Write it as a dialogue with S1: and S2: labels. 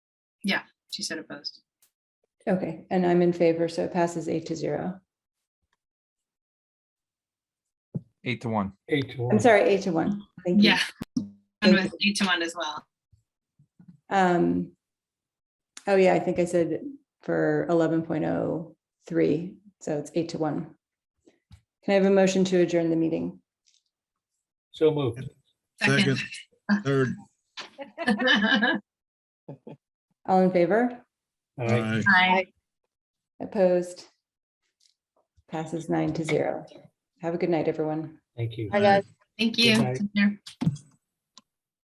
S1: Yeah, she said opposed.
S2: Okay, and I'm in favor, so it passes eight to zero.
S3: Eight to one.
S4: Eight to
S2: I'm
S4: one.
S2: sorry, eight to one. Thank you.
S1: Yeah. And with eight to one as well.
S2: Um, oh yeah, I think I said for eleven point oh three, so it's eight to one. Can I have a motion to adjourn the meeting?
S4: So moved.
S1: Second.
S5: Second, third,
S2: All in favor?
S4: All right.
S5: aye.
S1: Aye.
S2: Opposed? Passes nine to zero. Have a good night, everyone.
S4: Thank you.
S5: Aye.
S1: Thank you.
S4: Goodbye.
S1: Take care.